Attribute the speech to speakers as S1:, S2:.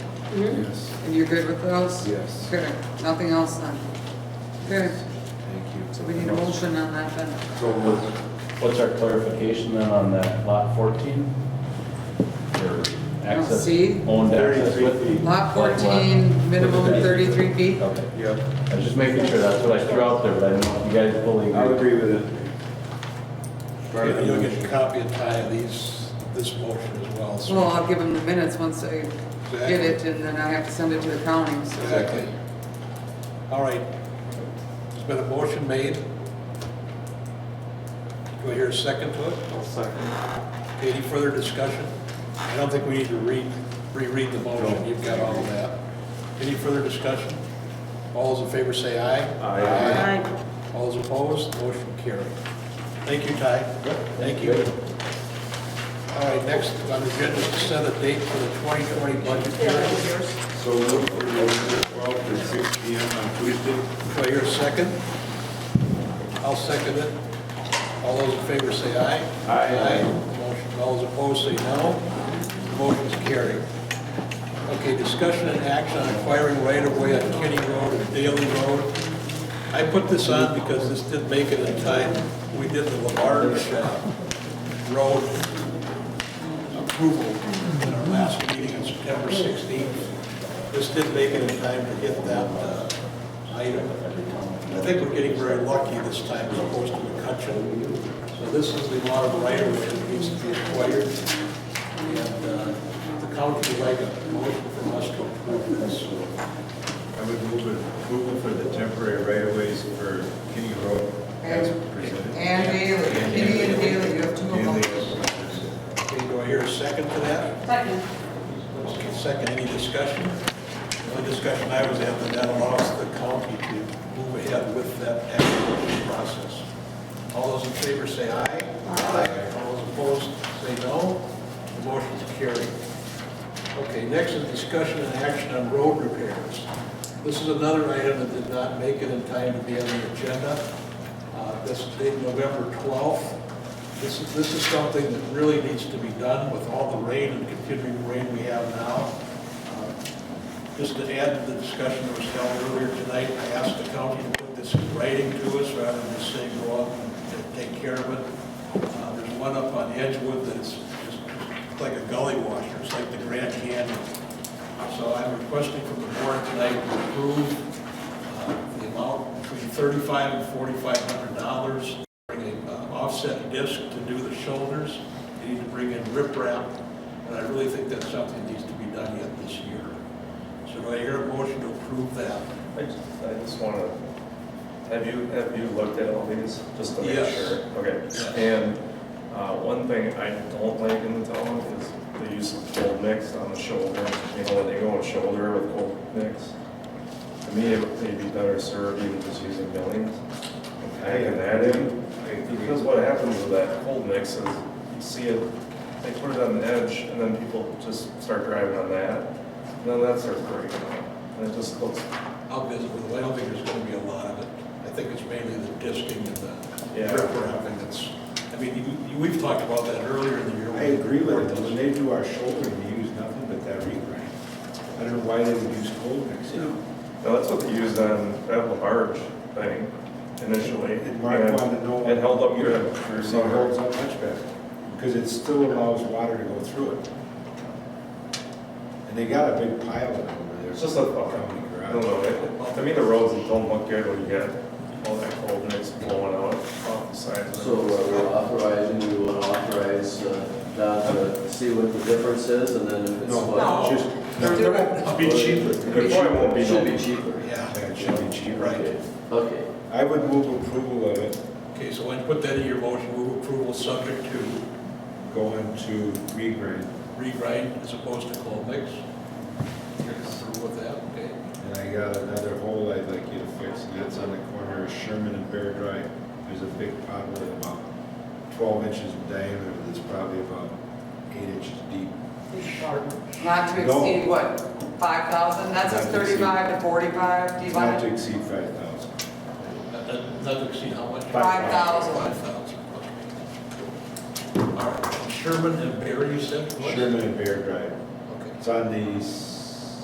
S1: Mm-hmm.
S2: Yes.
S3: And you're good with those?
S2: Yes.
S3: Good, nothing else then? Good,
S2: Thank you.
S3: so we need a motion on that then.
S2: So moved.
S4: What's our clarification then on that lot 14? For access,
S3: see.
S4: owned access with?
S3: Lot 14, minimum 33 feet.
S4: Okay,
S2: Yep,
S4: I was just making sure, that's what I threw out there, but I do not know if you guys fully
S2: I would
S4: agree.
S2: agree with it. Part of the
S5: You'll get a
S2: motion.
S5: copy of Ty of these, this motion as well. so-
S3: Well, I'll give them the minutes once I get it, and then I have to send it to the county, so.
S5: Exactly. All right. There's been a motion made. Do I hear a second to it? second. Any further discussion? I don't think we need to read, reread the motion. You've got all of that. Any further discussion? All those in favor say aye.
S2: Aye.
S5: All those opposed, motion carried. Thank you, Ty. Thank you. All right, next on the agenda is to set a date for the 2020 budget hearing.
S2: So moved for November twelfth at six P M on Tuesday.
S5: Do I hear a second? I'll second it. All those in favor say aye.
S2: Aye.
S5: Motion, all those opposed say no. Motion's carried. Okay, discussion and action on acquiring right-of-way on Kenny Road and Daly Road. I put this on because this did make it in time. We did the Lamarge uh, Road approval in our last meeting on September 16th. This did make it in time to hit that uh, item. I think we're getting very lucky this time as opposed to McCutcheon. So this is the amount of right-of-way that needs to be acquired. And uh, the county would like a motion from us to approve this.
S1: I would move it- approval for the temporary right-of-ways for Kenny Road as presented.
S3: And Haley, Kitty and Haley, you have two of
S1: And
S3: them.
S1: the-
S5: Okay, do I hear a second to that?
S6: Second.
S5: Second, any discussion? The only discussion I was at, that that allows the county to move ahead with that acquisition process. All those in favor say aye. Aye. All those opposed say no. The motion's carried. Okay, next is discussion and action on road repairs. This is another item that did not make it in time to be on the agenda. Uh, This is dated November 12th. This is, this is something that really needs to be done with all the rain and continuing rain we have now. Uh, Just to add to the discussion that was held earlier tonight, I asked the county to put this in writing to us rather than just saying go out and take care of it. Uh, There's one up on Edgewood that's just like a gully washer, it's like the Grand Canyon. So I'm requesting from the board tonight to approve uh, the amount between thirty-five and forty-five hundred dollars. Bring an offset disc to do the shoulders. You need to bring in riprap, and I really think that's something that needs to be done yet this year. So do I hear a motion to approve that?
S7: I just, I just want to, have you, have you looked at all these, just to make
S5: Yes.
S7: sure? Okay, and uh, one thing I don't like in the town is the use of cold mix on the shoulder, you know, when they go on shoulder with cold mix. To me, it would be better served even just using millings and packing that in, because what happens with that cold mix is, you see it, they put it on the edge, and then people just start driving on that, and then that starts breaking, and it just looks
S5: I'll visit with, I don't think there's gonna be a lot of it. I think it's mainly the disking and the
S7: Yeah.
S5: riprap, and it's, I mean, you- you- we've talked about that earlier in the year.
S1: I agree with it, when they do our shoulder, they use nothing but that regrind. I don't know why they would use cold mix, you know?
S7: No, that's what they used on that large thing initially.
S1: And Mark wanted to know.
S7: It held up your, your
S1: So it holds
S7: summer.
S1: up much better, because it still allows water to go through it. And they got a big pile of it over there.
S7: It's just a thought.
S1: County
S7: I
S1: garage.
S7: don't know, it- to me, the roads don't look good when you get all that cold mix blowing out off the sides. of
S8: So uh,
S7: it.
S8: we're authorizing, we want to authorize uh, Don to see what the difference is, and then if it's
S5: No.
S8: what...
S1: Just,
S5: It'll be cheaper.
S7: It probably won't be.
S8: Should be cheaper.
S5: Yeah.
S1: it should be cheaper.
S5: Right.
S8: Okay, okay.
S1: I would move approval of it
S5: Okay, so when you put that in your motion, move approval subject to
S1: going to regrind,
S5: regrind as opposed to cold mix. You're comfortable with that, okay?
S1: and I got another hole I'd like you to fix, and that's on the corner of Sherman and Bear Drive. There's a big pothole about twelve inches in diameter, that's probably about eight inches deep.
S3: Not to exceed what, 5,000? That's a
S1: Not to exceed.
S3: 35 to 45, do you
S1: Not
S3: want
S1: to
S3: it?
S1: exceed five thousand.
S5: That- that- That would exceed how much?
S3: Five thousand.
S5: Five thousand, okay. All right, Sherman and Barry, you said? what?
S1: Sherman and Bear Drive.
S5: Okay,
S1: It's on the s-